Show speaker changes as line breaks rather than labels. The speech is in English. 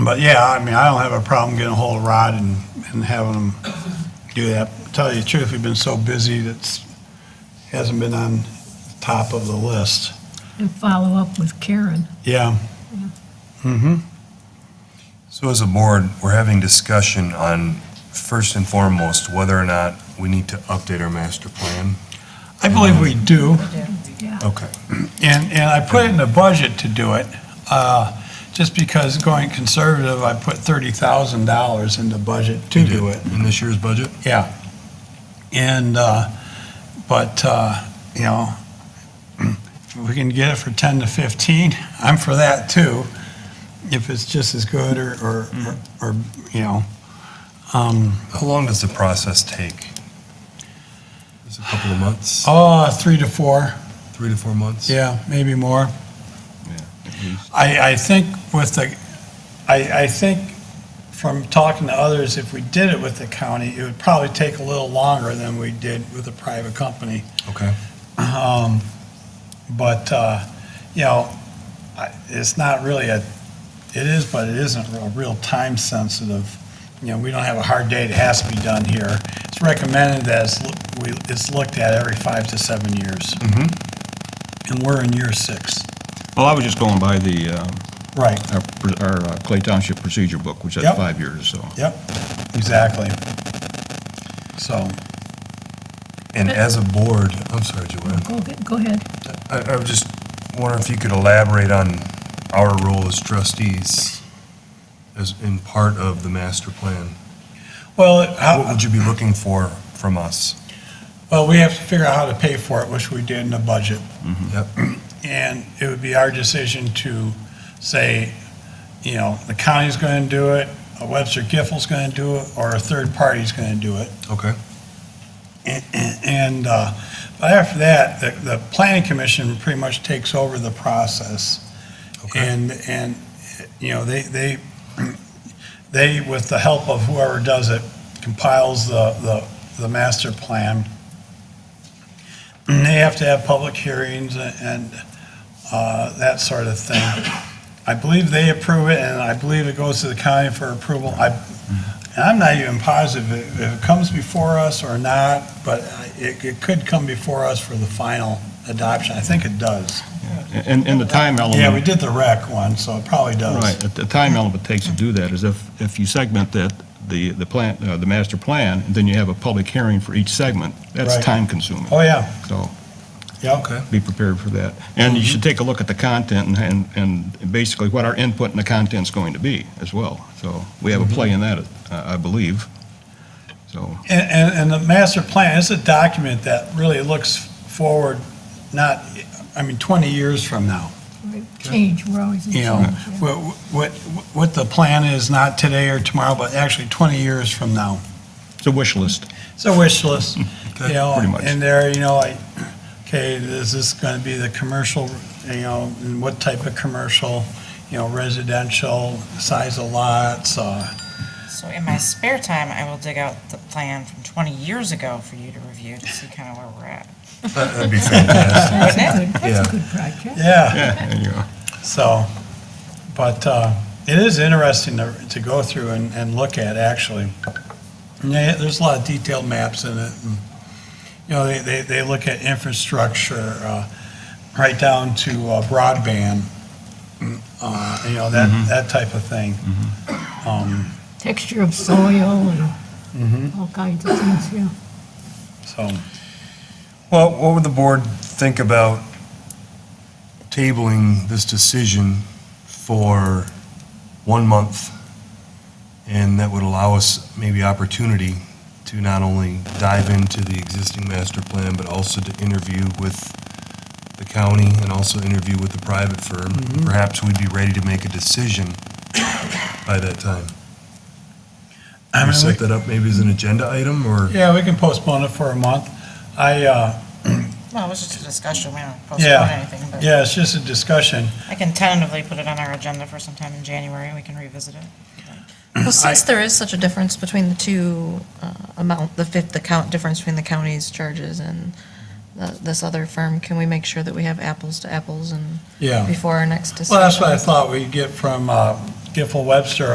But yeah, I mean, I don't have a problem getting a hold of Rod and, and having him do that. Tell you the truth, we've been so busy that's, hasn't been on top of the list.
and follow up with Karen.
Yeah.
So as a board, we're having discussion on, first and foremost, whether or not we need to update our master plan.
I believe we do,
Okay.
and, and I put it in the budget to do it. Uh, Just because going conservative, I put thirty thousand dollars in the budget to do it.
In this year's budget?
Yeah. And, uh, but, uh, you know, if we can get it for 10 to 15, I'm for that too, if it's just as good or, or, or, you know. Um,
How long does the process take? Is it a couple of months?
Oh, three to four,
Three to four months?
yeah, maybe more. I, I think with the, I, I think from talking to others, if we did it with the county, it would probably take a little longer than we did with a private company.
Okay.
Um, But, uh, you know, I- it's not really a, it is, but it isn't a real time sensitive. You know, we don't have a hard date, it has to be done here. It's recommended that it's, loo- we- it's looked at every five to seven years. And we're in year six.
Well, I was just going by the, uh,
Right.
our pr- our uh, Clay Township Procedure Book, which
Yep.
has five years, so.
Yep, exactly. So,
And as a board, I'm sorry, Joanne.
Go ahead- Oh, go ahead.
I, I was just wondering if you could elaborate on our role as trustees as in part of the master plan.
well,
What
how,
would you be looking for from us?
well, we have to figure out how to pay for it, which we did in the budget.
Yep.
And it would be our decision to say, you know, the county's going to do it, a Webster Giffel's going to do it, or a third party's going to do it.
Okay.
And- And, uh, but after that, the, the planning commission pretty much takes over the process.
Okay.
And, and, you know, they, they, they, with the help of whoever does it, compiles the, the, the master plan. And they have to have public hearings and, uh, that sort of thing. I believe they approve it, and I believe it goes to the county for approval. I, and I'm not even positive if if it comes before us or not, but uh, it, it could come before us for the final adoption. I think it does.
And, and the time element.
Yeah, we did the rec one, so it probably does.
Right, the- the time element it takes to do that is if, if you segment that, the, the plan, uh, the master plan, then you have a public hearing for each segment, that's
Right.
time consuming.
Oh, yeah,
So
yeah.
Okay.
be prepared for that. And you should take a look at the content and, and and basically what our input and the content's going to be as well. So we have
Mm-hmm.
a play in that, uh, I believe, so.
And, and, and the master plan is a document that really looks forward, not, I mean, 20 years from now.
Change, we're always in
You know,
change. yeah.
what, what, what the plan is, not today or tomorrow, but actually 20 years from now.
It's a wish list.
It's a wish list, you
Okay,
know,
pretty much.
and there, you know, like, okay, is this going to be the commercial, you know, and what type of commercial, you know, residential, size of lots, uh,
So in my spare time, I will dig out the plan from 20 years ago for you to review to see kind of where we're at.
That- That'd be fantastic.
That's a
Yeah.
good, that's
Yeah.
a good project.
yeah.
Yeah, there you go.
So, but uh, it is interesting to to go through and and look at, actually. And they- There's a lot of detailed maps in it. and, You know, they- they they look at infrastructure, uh, right down to uh, broadband, uh, you know, that that type of thing. Um,
Texture of soil and all kinds of things, yeah.
So,
Well, what would the board think about tabling this decision for one month? And that would allow us maybe opportunity to not only dive into the existing master plan, but also to interview with the county and also interview with the private firm. Perhaps we'd be ready to make a decision by that time.
I
We
mean, we-
set that up maybe as an agenda item or?
yeah, we can postpone it for a month. I, uh,
Well, it was just a discussion, we don't postpone
yeah,
anything, but
yeah, it's just a discussion.
I can tentatively put it on our agenda for sometime in January, and we can revisit it.
Well, since there is such a difference between the two uh, amount, the fifth, the count, difference between the county's charges and the- this other firm, can we make sure that we have apples to apples and
Yeah.
before our next decision?
Well, that's what I thought we'd get from uh, Giffel Webster